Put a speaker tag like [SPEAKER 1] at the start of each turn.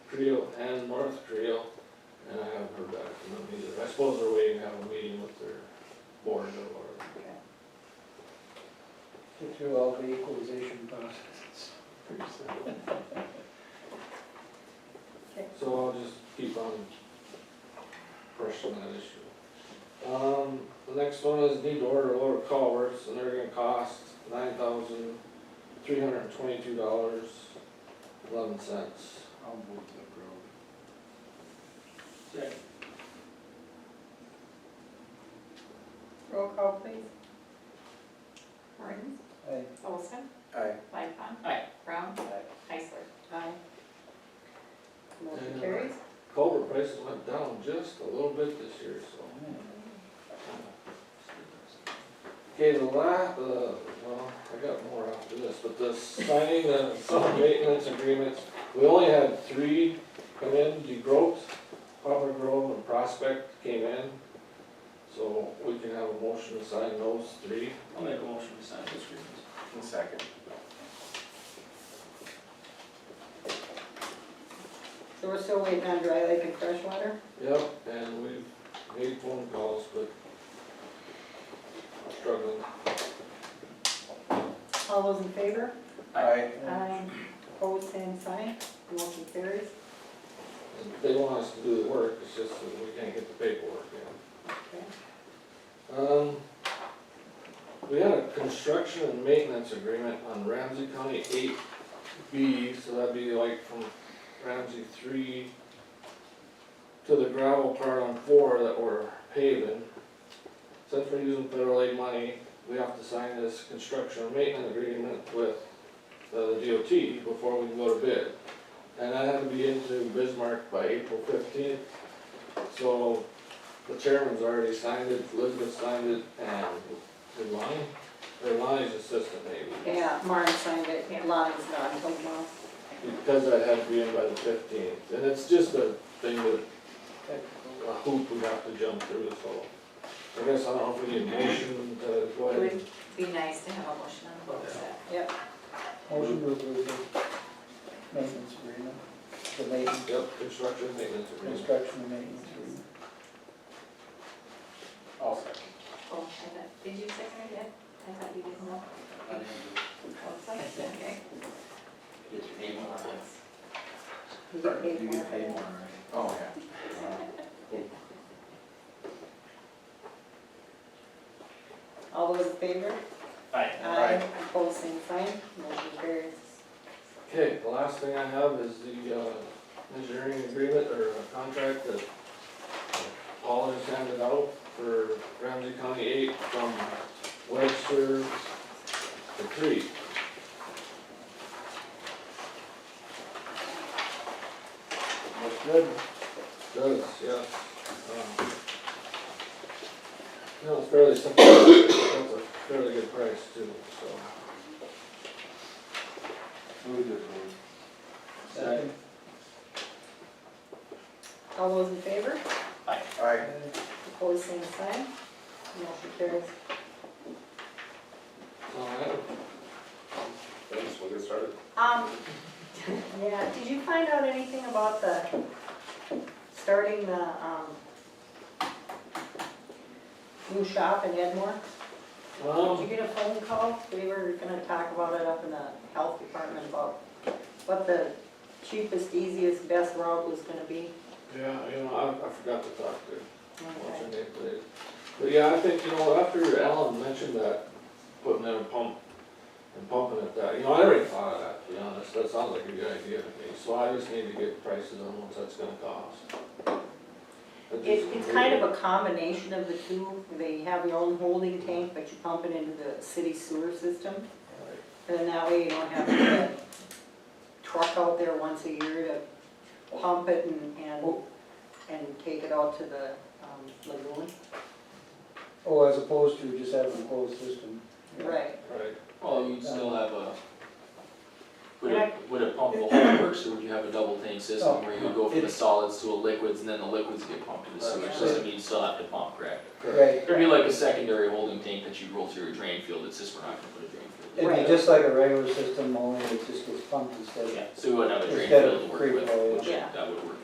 [SPEAKER 1] Creel and Martha Creel, and I haven't heard back from them either. I suppose they're waiting to have a meeting with their board or,
[SPEAKER 2] Get through all the equalization processes.
[SPEAKER 3] Okay.
[SPEAKER 1] so I'll just keep on pressing that issue. Um, the next one is need to order lower culverts, and they're gonna cost nine thousand, three hundred and twenty-two dollars, eleven cents.
[SPEAKER 4] I'll move to approve.
[SPEAKER 2] Second.
[SPEAKER 3] Roll call, please.
[SPEAKER 5] Martins,
[SPEAKER 2] Aye.
[SPEAKER 5] Olson,
[SPEAKER 4] Aye.
[SPEAKER 5] Lightcon.
[SPEAKER 2] Aye.
[SPEAKER 5] Brown.
[SPEAKER 2] Aye.
[SPEAKER 5] Heisler.
[SPEAKER 3] Aye. Motion
[SPEAKER 1] Yeah.
[SPEAKER 3] carries.
[SPEAKER 1] Culvert prices went down just a little bit this year, so. Okay, the la, the, well, I got more after this, but the signing the summer maintenance agreements, we only had three come in, DeGroat, Poplar Grove, and Prospect came in. So we can have a motion to sign those three.
[SPEAKER 6] I'll make a motion to sign this agreement.
[SPEAKER 4] And second.
[SPEAKER 3] So we're still waiting on dry lake and freshwater?
[SPEAKER 1] Yep, and we've made phone calls, but struggling.
[SPEAKER 3] All those in favor?
[SPEAKER 4] Aye.
[SPEAKER 2] Eh,
[SPEAKER 3] Aye. Opposed, same sign. Motion carries.
[SPEAKER 1] They want us to do the work, it's just that we can't get the paperwork in.
[SPEAKER 3] Okay.
[SPEAKER 1] Um, we had a construction and maintenance agreement on Ramsey County eight B, so that'd be like from Ramsey three to the gravel part on four that we're paving. Since we're using federal aid money, we have to sign this construction and maintenance agreement with uh, the DOT before we can go to bid. And that had to be into Bismarck by April fifteenth, so the chairman's already signed it, Elizabeth signed it, and did Lonnie? Or Lonnie's assistant maybe,
[SPEAKER 3] Yeah, Martin signed it, Lonnie's not, so no.
[SPEAKER 1] because that had to be in by the fifteenth, and it's just a thing that,
[SPEAKER 2] Technical.
[SPEAKER 1] a hoop we have to jump through, so. I guess I don't know if we need a motion to go
[SPEAKER 5] It
[SPEAKER 1] ahead.
[SPEAKER 5] would be nice to have a motion on the books that
[SPEAKER 3] Yep,
[SPEAKER 2] Motion to approve the maintenance agreement, the maintenance,
[SPEAKER 1] Yep, construction maintenance agreement.
[SPEAKER 2] construction and maintenance agreement.
[SPEAKER 4] I'll second.
[SPEAKER 5] Oh, I thought, did you second it yet? I thought you didn't know. Oh, second, okay.
[SPEAKER 6] Get your name on it.
[SPEAKER 3] you get paid
[SPEAKER 4] You
[SPEAKER 3] for
[SPEAKER 4] get paid
[SPEAKER 3] it.
[SPEAKER 4] more, right? Oh, yeah. Uh,
[SPEAKER 3] All those in favor?
[SPEAKER 6] Aye.
[SPEAKER 3] Aye. Opposed, same sign. Motion carries.
[SPEAKER 1] Okay, the last thing I have is the, uh, engineering agreement or uh, contract that Paul has handed out for Ramsey County eight from Webster to Creek.
[SPEAKER 4] Looks good.
[SPEAKER 1] Does, yeah. Um, No, it's fairly simple, that's a fairly good price too, so.
[SPEAKER 4] Move to approve.
[SPEAKER 2] Second.
[SPEAKER 3] All those in favor?
[SPEAKER 4] Aye.
[SPEAKER 2] Eh,
[SPEAKER 3] Opposed, same sign. Motion carries.
[SPEAKER 1] Alright,
[SPEAKER 4] Thanks, we'll get started.
[SPEAKER 3] Um, yeah, did you find out anything about the, starting the, um, new shop in Edmore? Did
[SPEAKER 1] um,
[SPEAKER 3] you get a phone call? We were gonna talk about it up in the health department about what the cheapest, easiest, best route was gonna be.
[SPEAKER 1] yeah, you know, I, I forgot to talk to What's her name, please? But yeah, I think, you know, after Alan mentioned that, putting in a pump and pumping it that, you know, I already thought of that, to be honest, that sounds like a good idea to me, so I just need to get prices on what that's gonna cost. But
[SPEAKER 3] It,
[SPEAKER 1] just-
[SPEAKER 3] it's kind of a combination of the two. They have your own holding tank, but you pump it into the city sewer system. And then that way you don't have to truck out there once a year to pump it and, and, and take it out to the um, lagoon.
[SPEAKER 2] Oh, as opposed to just having a closed system.
[SPEAKER 3] Right.
[SPEAKER 1] Right,
[SPEAKER 6] Well, you'd still have a, would it, would it pump the whole works, or would you have a double tank system where you
[SPEAKER 4] Oh.
[SPEAKER 6] would go from the solids to the liquids, and then the liquids get pumped to the sewage system, you'd still have to pump, correct?
[SPEAKER 1] correct,
[SPEAKER 2] Right,
[SPEAKER 6] It'd be like a secondary holding tank that you roll through your drain field, it's just we're not gonna put a drain field.
[SPEAKER 2] it'd be just like a regular system, only it just gets pumped instead of
[SPEAKER 6] Yeah, so we wouldn't have a drain
[SPEAKER 2] Instead of
[SPEAKER 6] field to work
[SPEAKER 2] free
[SPEAKER 6] with,
[SPEAKER 2] flow,
[SPEAKER 6] which
[SPEAKER 3] yeah.
[SPEAKER 6] I